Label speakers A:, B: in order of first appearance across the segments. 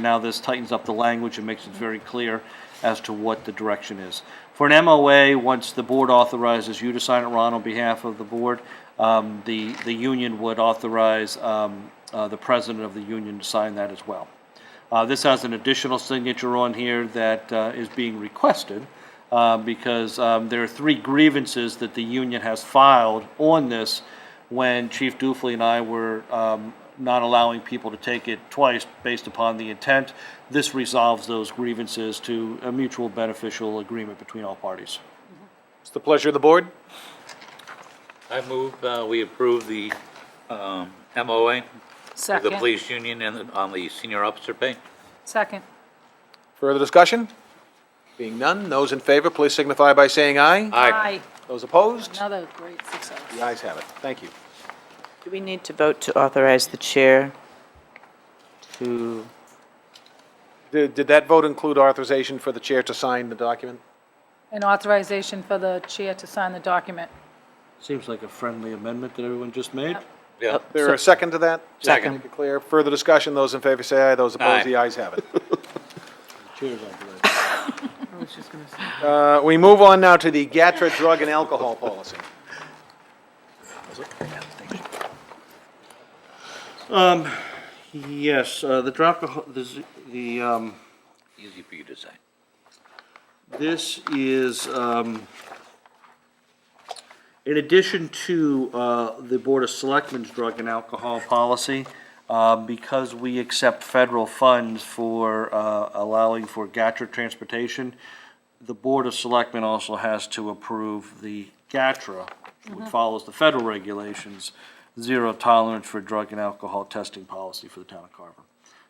A: Now this tightens up the language and makes it very clear as to what the direction is. For an MOA, once the board authorizes you to sign it, Ron, on behalf of the board, um, the, the union would authorize um, uh, the president of the union to sign that as well. Uh, This has an additional signature on here that uh, is being requested uh, because um, there are three grievances that the union has filed on this when Chief Dufley and I were um, not allowing people to take it twice based upon the intent. This resolves those grievances to a mutual beneficial agreement between all parties.
B: It's the pleasure of the board.
C: I move uh, we approve the um, MOA of the
D: Second.
C: police union and the- on the senior officer pay.
D: Second.
B: Further discussion? Being none, those in favor, please signify by saying aye.
D: Aye.
B: Those opposed?
D: Another great success.
B: The ayes have it. Thank you.
E: Do we need to vote to authorize the chair to,
B: Did did that vote include authorization for the chair to sign the document?
D: An authorization for the chair to sign the document.
A: Seems like a friendly amendment that everyone just made.
C: Yeah.
B: There a second to that? Just to
E: Second.
B: make it Clear. Further discussion, those in favor say aye, those
C: Aye.
B: opposed, the ayes have it.
A: Cheers, I believe.
B: Uh, We move on now to the GATRA drug and alcohol policy.
A: Yes, uh, the drop, the, z- the, um,
C: Easy for you to say.
A: This is, um, in addition to uh, the Board of Selectmen's drug and alcohol policy, uh, because we accept federal funds for uh, allowing for GATRA transportation, the Board of Selectmen also has to approve the GATRA, which follows the federal regulations, zero tolerance for drug and alcohol testing policy for the town of Carver.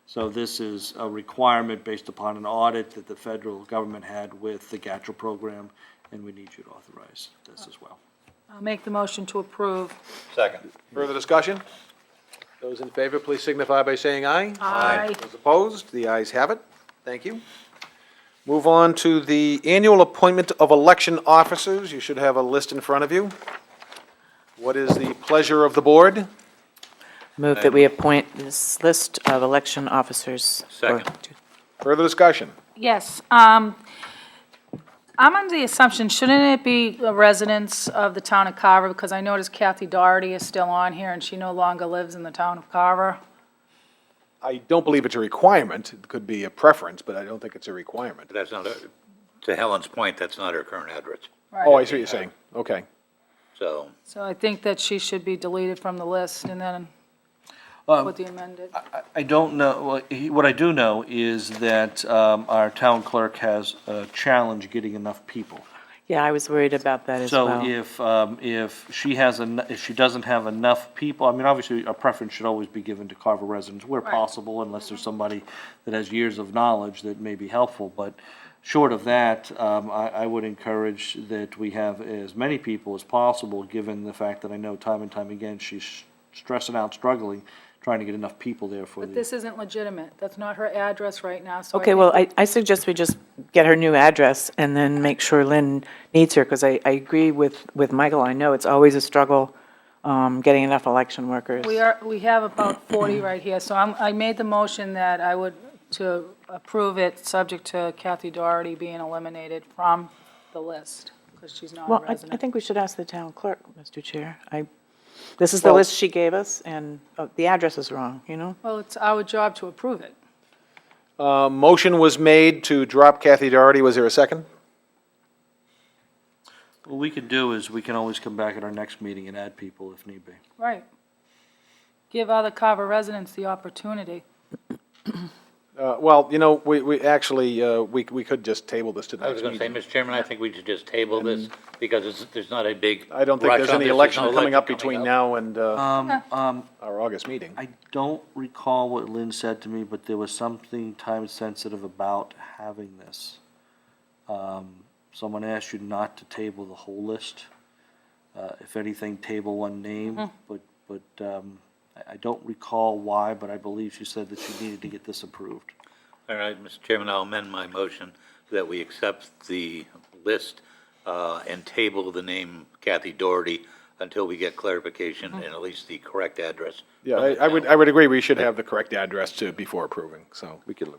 A: So this is a requirement based upon an audit that the federal government had with the GATRA program, and we need you to authorize this as well.
D: I'll make the motion to approve.
C: Second.
B: Further discussion? Those in favor, please signify by saying aye.
D: Aye.
B: Those opposed, the ayes have it. Thank you. Move on to the annual appointment of election officers. You should have a list in front of you. What is the pleasure of the board?
E: move that we appoint this list of election officers? or-
C: Second.
B: Further discussion?
D: Yes, um, I'm under the assumption, shouldn't it be the residents of the town of Carver? Because I noticed Kathy Doherty is still on here, and she no longer lives in the town of Carver.
B: I don't believe it's a requirement. It could be a preference, but I don't think it's a requirement.
C: That's not, her- to Helen's point, that's not her current address.
B: Oh, I see what you're saying. Okay.
C: So
D: So I think that she should be deleted from the list, and then with the amended.
A: Um, I don't know, well, he- what I do know is that um, our town clerk has a challenge getting enough people.
E: Yeah, I was worried about that as well.
A: So if, um, if she has, en- if she doesn't have enough people, I mean, obviously, a preference should always be given to Carver residents where possible, unless there's somebody that has years of knowledge that may be helpful, but short of that, um, I, I would encourage that we have as many people as possible, given the fact that I know time and time again, she's stressing out, struggling, trying to get enough people there for
D: But
A: the.
D: this isn't legitimate. That's not her address right now, so I
E: Okay,
D: think
E: well, I, I suggest we just get her new address and then make sure Lynn needs her, because I, I agree with, with Michael. I know it's always a struggle, um, getting enough election workers.
D: We are, we have about 40 right here, so I'm, I made the motion that I would, to approve it, subject to Kathy Doherty being eliminated from the list, because she's not
E: Well,
D: a
E: I, I
D: resident.
E: think we should ask the town clerk, Mr. Chair. I, this is the list she gave us, and uh, the address is wrong, you know?
D: Well, it's our job to approve it.
B: A Uh, motion was made to drop Kathy Doherty. Was there a second?
A: What we could do is, we can always come back at our next meeting and add people if need be.
D: Right. Give other Carver residents the opportunity.
B: Uh, Well, you know, we, we actually, uh, we, we could just table this to the
C: I
B: next
C: was going to say,
B: meeting.
C: Mr. Chairman, I think we should just table this because it's, there's not a big
B: I don't think
C: rush
B: there's
C: on
B: any
C: this.
B: election
C: no
B: coming up
C: election
B: between
C: coming up.
B: now and uh,
A: Um,
B: our August meeting.
A: I don't recall what Lynn said to me, but there was something time-sensitive about having this. Um, Someone asked you not to table the whole list. Uh, If anything, table one name, but, but um, I I don't recall why, but I believe she said that she needed to get this approved.
C: All right, Mr. Chairman, I'll amend my motion that we accept the list uh, and table the name Kathy Doherty until we get clarification and at least the correct address.
B: Yeah,
C: from
B: I
C: the
B: I would,
C: town.
B: I would agree, we should have the correct address to, before approving, so. We could